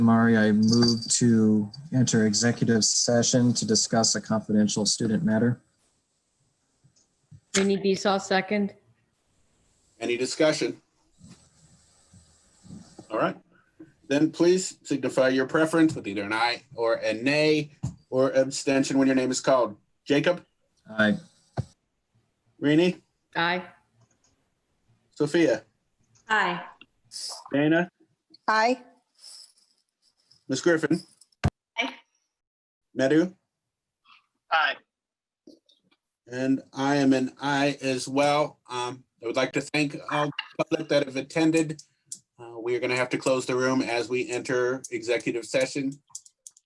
Mari, I move to enter executive session to discuss a confidential student matter. Vinnie Beesaw, second. Any discussion? All right, then please signify your preference with either an aye or a nay or abstention when your name is called. Jacob, Aye. Rini, Aye. Sophia, Aye. Dana, Aye. Ms. Griffin. Aye. Madhu, Aye. and I am an aye as well. Um, I would like to thank all the public that have attended. Uh, we are going to have to close the room as we enter executive session.